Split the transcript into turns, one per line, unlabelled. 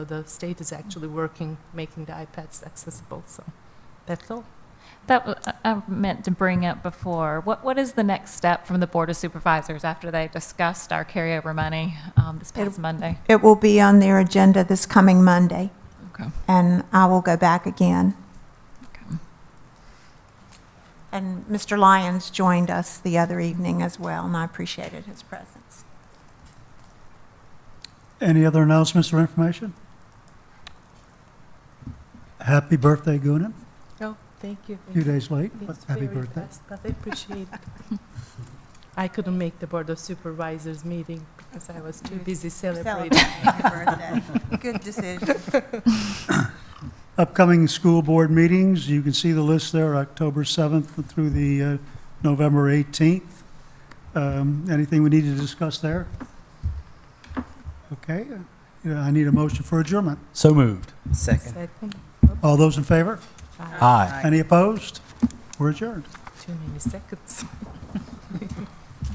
The state is actually working, making the iPads accessible, so that's all.
That w- I- I meant to bring up before. What what is the next step from the Board of Supervisors after they discussed our carryover money um, this past Monday?
It will be on their agenda this coming Monday,
Okay.
and I will go back again.
Okay.
And Mr. Lyons joined us the other evening as well, and I appreciated his presence.
Any other announcements or information? Happy birthday, Gunan.
Oh, thank you.
A few days late, but
It's
happy
very
birthday.
fast, But I appreciate it. I couldn't make the Board of Supervisors meeting because I was too busy celebrating.
Good decision.
Upcoming school board meetings, you can see the list there, October 7th through the uh, November 18th. Um, Anything we need to discuss there? Okay, uh, I need a motion for adjournment.
So moved.
Second.
Second,
All those in favor?
five,
Aye.
Aye.
Any opposed? We're adjourned.
too many seconds.